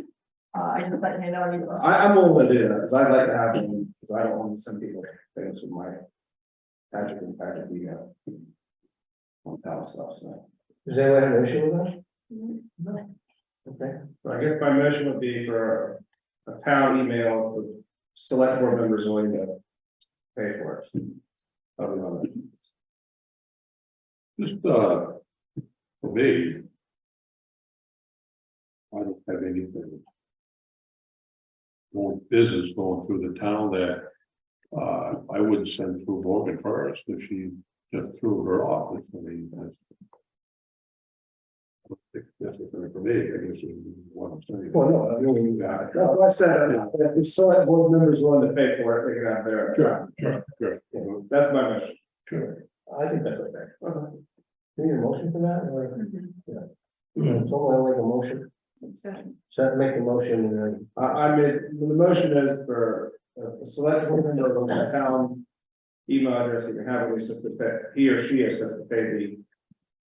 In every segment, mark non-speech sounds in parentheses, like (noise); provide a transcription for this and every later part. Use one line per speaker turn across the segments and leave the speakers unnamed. Uh, I just let him know, I need to.
I, I'm all with it, because I'd like to have them, because I don't want some people things with my. Patrick and Patrick, we got. On that stuff, so.
Does anyone have an issue with that? Okay,
So I guess my motion would be for a town email with select board members willing to pay for it. Other than that.
Just, uh, for me. I don't have anything. More business going through the town that, uh, I wouldn't send through Morgan first if she just threw her off, I mean, that's. I don't think That's the thing for me, I guess, is what I'm saying.
Well, no, I
You got it.
No, I said, uh, if the select board members willing to pay for it, they can have their.
Sure, sure, sure,
That's my motion.
sure.
I think that's okay. Do you need a motion for that or?
Mhm.
(clears throat) Someone wanna make a motion,
So,
so make a motion uh, and then.
I, I made, the motion is for a select board member on the town. Email address, you can have at least just to pay, he or she has just to pay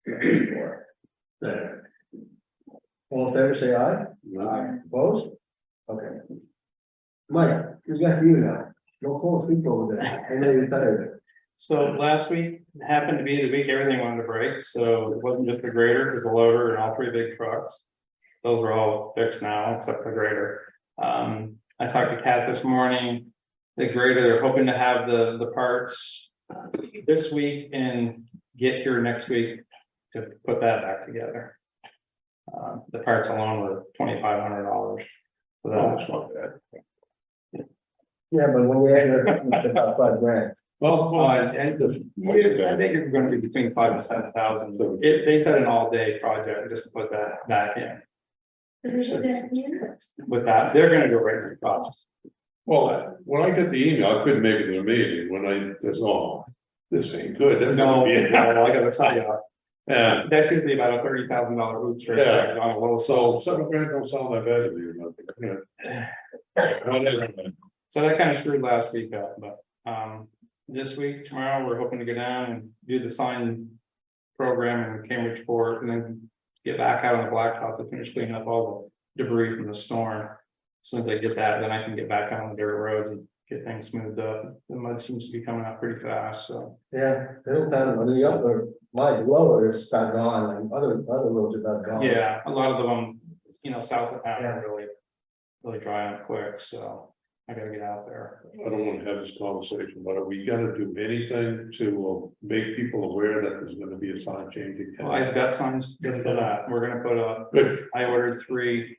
the. for
All in favor, say aye.
Not-
Opposed? Okay. Mike, we got you now. No close, we go with that. I know you're better.
So last week happened to be the week everything wanted to break, so it wasn't just the grader, it was the loader and all three big trucks. Those are all fixed now, except the grader. Um, I talked to Kat this morning. The grader, they're hoping to have the, the parts this week and get here next week to put that back together. Uh, the parts alone were twenty-five hundred dollars. So that's
That's not bad.
Yeah, but when we add it, it's about five grand.
Well,
Uh,
well,
and and the- I think it's gonna be between five and seven thousand, it, they said an all-day project, just to put that back in.
we should get units.
With that, they're gonna go right to the cost.
Well, when I got the email, I couldn't make it to the meeting, when I, that's all, this ain't good, that's
No,
gonna be. (laughs)
no, I gotta tell you,
Yeah,
that's usually about a thirty thousand dollar roof trip,
Yeah.
on a little,
so
so,
seven grand don't sound that bad to me, but. Whatever.
so that kind of screwed last week up, but, um, this week, tomorrow, we're hoping to go down and do the sign program in Cambridge Port, and then get back out on the blacktop to finish cleaning up all the debris from the storm. As Soon as I get that, then I can get back out on the dirt roads and get things smoothed up, the mud seems to be coming out pretty fast, so.
Yeah, Middletown, or the other, my lower is about gone, and other, other roads are about gone.
Yeah, a lot of them, you know, south of town
Yeah.
are really, really dry up quick, so I gotta get out there.
I don't wanna have this conversation, but are we gonna do anything to uh, make people aware that there's gonna be a sign change
Well, I've
again?
got signs good for that, we're gonna put up,
Good,
I ordered three.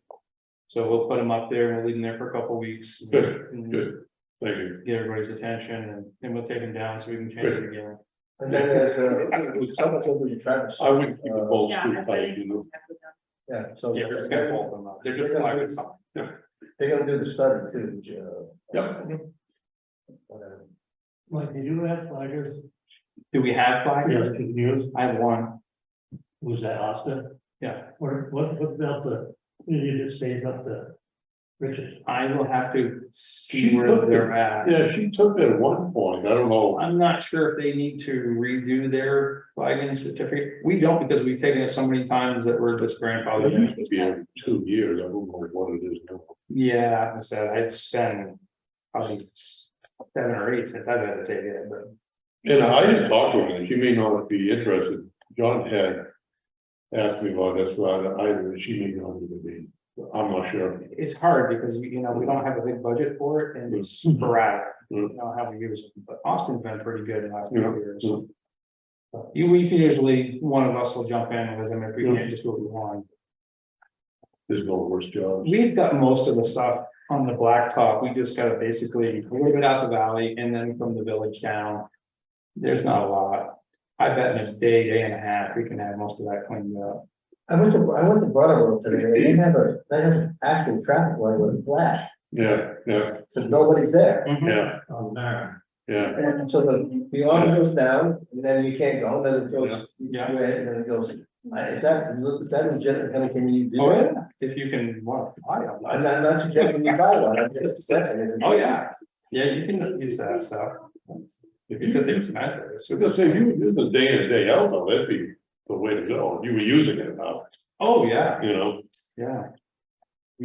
So we'll put them up there, we'll leave them there for a couple weeks. and-
Good,
and
good, thank you.
Get everybody's attention and then we'll take them down so we can change it again.
And then there's, uh, so much over to Travis.
I wouldn't keep the
Uh,
whole
Yeah,
street
I
tight, you know,
think-
Yeah, so.
Yeah, we're just gonna hold them up, they're just plywood signs.
They're gonna do the study too, uh. Whatever.
Mike, did you have flaggers?
Do we have flags?
Yeah, could use,
I have one,
was that Oscar?
yeah,
Or what, what about the, you just stays up to Richard?
I will have to see
She
where
looked
they're at.
yeah, she took that at one point, I don't know.
I'm not sure if they need to redo their flagging certificate. We don't because we've taken it so many times that we're just
It
grandfathered.
used to be every two years, I don't know what it is now.
Yeah, I said, it's been probably seven or eight since I've had to take it, but
And I didn't talk to her, and she may not be interested, John had. Asked me about this, but I, she may not even be, I'm not sure,
it's hard because, we, you know, we don't have a big budget for it and it's sporadic. We don't know how we use it, but Austin's been pretty good in the last few
Yeah,
years.
yeah.
You, we can usually, one of us will jump in with them if we
Yeah.
can't just do what we want.
there's no worse job.
We've got most of the stuff on the blacktop, we just gotta basically a little bit out the valley and then from the village down. There's not a lot, I bet in a day, day and a half, we can have most of that cleaned up.
I went to, I went to Brattleboro today, they have a, they have an actual traffic light with a flash,
Yeah, yeah,
so nobody's there.
yeah,
On there.
yeah,
And so the, the arm goes down, and then you can't go, then it goes,
Yeah.
straight, and then it goes, I- is that, is that legit, gonna, can you do
Oh,
it?
yeah, if you can, well, I don't
I'm
know.
not, I'm not suggesting you buy one, I'm just saying.
oh, yeah, yeah, you can use that stuff. If you just expensive, it's
so just
super,
say, you were doing the day in and day out, though, that'd be the way to go, you were using it now,
oh, yeah,
you know,
yeah,